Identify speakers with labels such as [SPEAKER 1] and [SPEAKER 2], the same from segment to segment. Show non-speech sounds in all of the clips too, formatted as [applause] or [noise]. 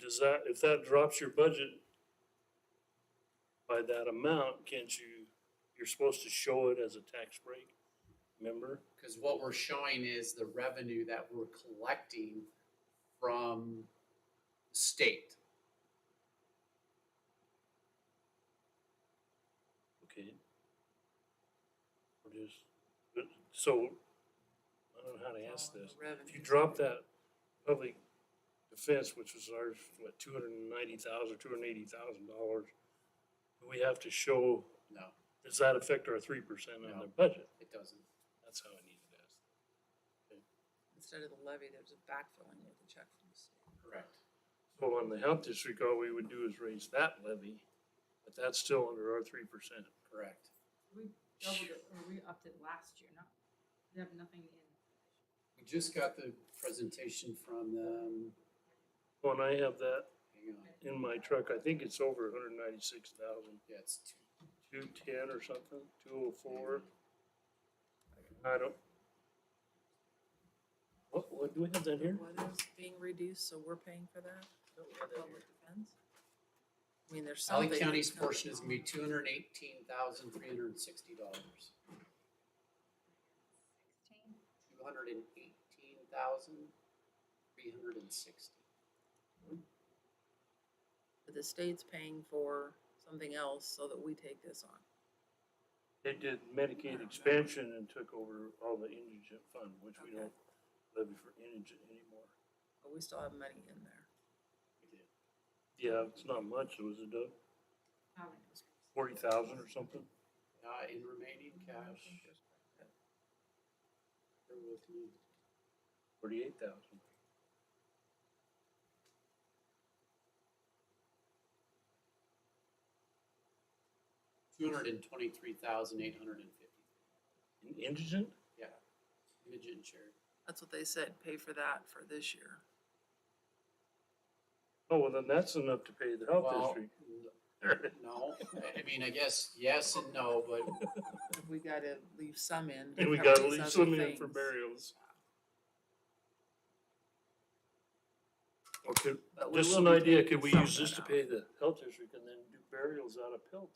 [SPEAKER 1] Does that, if that drops your budget by that amount, can't you, you're supposed to show it as a tax break, remember?
[SPEAKER 2] Because what we're showing is the revenue that we're collecting from state.
[SPEAKER 1] Okay. Or just, but- so, I don't know how to ask this. If you drop that public defense, which was ours, what, two hundred and ninety thousand, two hundred and eighty thousand dollars, do we have to show,
[SPEAKER 2] No,
[SPEAKER 1] does that affect our three percent on
[SPEAKER 2] No.
[SPEAKER 1] the budget?
[SPEAKER 2] it doesn't.
[SPEAKER 1] That's how I needed to ask.
[SPEAKER 3] Instead of the levy, there's a backfilling with a check from the state.
[SPEAKER 2] Correct.
[SPEAKER 1] So on the health district, all we would do is raise that levy, but that's still under our three percent.
[SPEAKER 2] Correct.
[SPEAKER 4] We doubled it, or we upped it last year, not, we have nothing in.
[SPEAKER 2] We just got the presentation from them.
[SPEAKER 1] When I have that
[SPEAKER 2] Hang
[SPEAKER 1] in
[SPEAKER 2] on.
[SPEAKER 1] my truck, I think it's over a hundred ninety-six thousand,
[SPEAKER 2] Yeah, it's two.
[SPEAKER 1] two ten or something, two oh four. I don't. What, what, do we have that here?
[SPEAKER 3] What is being reduced, so we're paying for that? Don't we have public defense? I mean, there's
[SPEAKER 2] Valley
[SPEAKER 3] something.
[SPEAKER 2] County's portion is gonna be two hundred and eighteen thousand, three hundred and sixty dollars.
[SPEAKER 4] Sixteen.
[SPEAKER 2] Two hundred and eighteen thousand, three hundred and sixty.
[SPEAKER 3] But The state's paying for something else so that we take this on.
[SPEAKER 1] They did Medicaid expansion and took over all the indigent fund, which we don't levy for indigent anymore.
[SPEAKER 3] But we still have money in there.
[SPEAKER 1] Yeah, it's not much, it was a
[SPEAKER 4] Valley District.
[SPEAKER 1] forty thousand or something.
[SPEAKER 2] Uh, in remaining cash, they're with me.
[SPEAKER 1] Forty-eight thousand.
[SPEAKER 2] Two hundred and twenty-three thousand, eight hundred and fifty.
[SPEAKER 1] Indigent?
[SPEAKER 2] Yeah. Indigent charity.
[SPEAKER 3] That's what they said, pay for that for this year.
[SPEAKER 1] Oh, well, then that's enough to pay the health
[SPEAKER 2] Well,
[SPEAKER 1] district.
[SPEAKER 2] No, I mean, I guess yes and no, but
[SPEAKER 3] We gotta leave some in. to
[SPEAKER 1] And we
[SPEAKER 3] cover
[SPEAKER 1] gotta
[SPEAKER 3] these
[SPEAKER 1] leave
[SPEAKER 3] other
[SPEAKER 1] some in for
[SPEAKER 3] things.
[SPEAKER 1] burials. Okay,
[SPEAKER 3] But we
[SPEAKER 1] just
[SPEAKER 3] will
[SPEAKER 1] an
[SPEAKER 3] be
[SPEAKER 1] idea,
[SPEAKER 3] taking
[SPEAKER 1] could we
[SPEAKER 3] some
[SPEAKER 1] use
[SPEAKER 3] of
[SPEAKER 1] this
[SPEAKER 3] that
[SPEAKER 1] to
[SPEAKER 3] out.
[SPEAKER 1] pay the health district and then do burials out of pilt?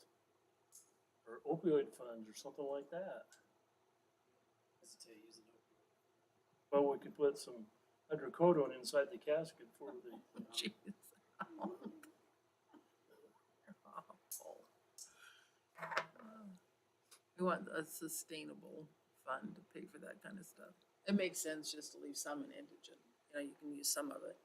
[SPEAKER 1] Or opioid funds or something like that?
[SPEAKER 2] hesitate using opioid.
[SPEAKER 1] Well, we could put some hydrocodone inside the casket for the,
[SPEAKER 3] [laughs] Jeez. Awful. We want a sustainable fund to pay for that kind of stuff. It makes sense just to leave some in indigent, you know, you can use some of it.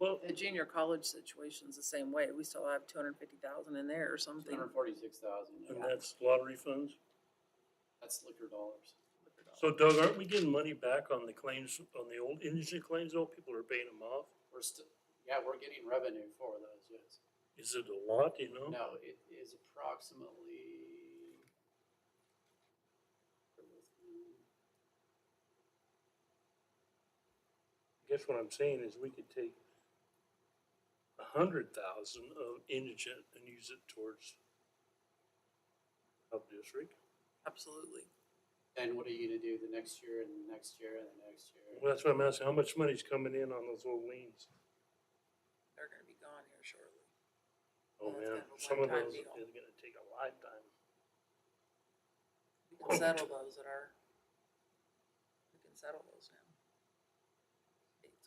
[SPEAKER 1] well,
[SPEAKER 3] The junior college situation's the same way, we still have two hundred and fifty thousand in there or
[SPEAKER 2] Two
[SPEAKER 3] something.
[SPEAKER 2] hundred and forty-six thousand,
[SPEAKER 1] and that's lottery funds.
[SPEAKER 2] that's liquor dollars.
[SPEAKER 1] So Doug, aren't we getting money back on the claims, on the old indigent claims, though? People are paying them off?
[SPEAKER 2] We're still, yeah, we're getting revenue for those, yes.
[SPEAKER 1] Is it a lot, you know?
[SPEAKER 2] No, it is approximately.
[SPEAKER 1] Guess what I'm saying is we could take a hundred thousand of indigent and use it towards health district.
[SPEAKER 3] Absolutely.
[SPEAKER 2] Then what are you gonna do the next year and the next year and the next year?
[SPEAKER 1] Well, that's what I'm asking, how much money's coming in on those old liens?
[SPEAKER 3] They're gonna be gone here shortly.
[SPEAKER 1] Oh,
[SPEAKER 3] Yeah, it's
[SPEAKER 1] man, some of
[SPEAKER 3] kind of a one-time
[SPEAKER 1] those is
[SPEAKER 3] deal.
[SPEAKER 1] gonna take a lifetime.
[SPEAKER 3] We can settle those at our, we can settle those now.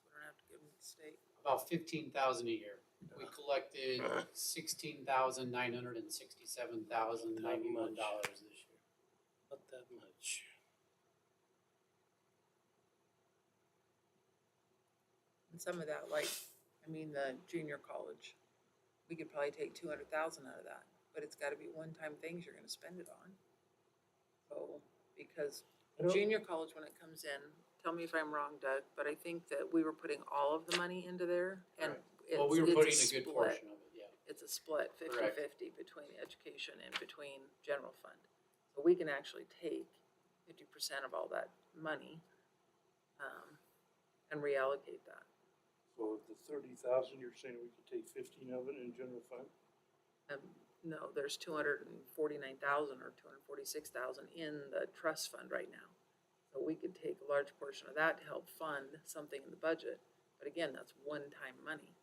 [SPEAKER 3] States, we don't have to give them to the state.
[SPEAKER 2] About fifteen thousand a year. We collected sixteen thousand, nine hundred and sixty-seven thousand, ninety-one dollars this year.
[SPEAKER 1] Not that much.
[SPEAKER 3] And some of that, like, I mean, the junior college, we could probably take two hundred thousand out of that, but it's gotta be one-time things you're gonna spend it on. So, because
[SPEAKER 1] I don't-
[SPEAKER 3] junior college, when it comes in, tell me if I'm wrong, Doug, but I think that we were putting all of the money into there and
[SPEAKER 2] Correct.
[SPEAKER 3] it's,
[SPEAKER 2] Well, we were
[SPEAKER 3] it's
[SPEAKER 2] putting a good
[SPEAKER 3] split.
[SPEAKER 2] portion of it, yeah.
[SPEAKER 3] It's a split,
[SPEAKER 2] Correct.
[SPEAKER 3] fifty-fifty between education and between general fund. So we can actually take fifty percent of all that money, um, and reallocate that.
[SPEAKER 1] So the thirty thousand, you're saying we could take fifteen of it in general fund?
[SPEAKER 3] Um, no, there's two hundred and forty-nine thousand or two hundred and forty-six thousand in the trust fund right now. So we could take a large portion of that to help fund something in the budget, but again, that's one-time money.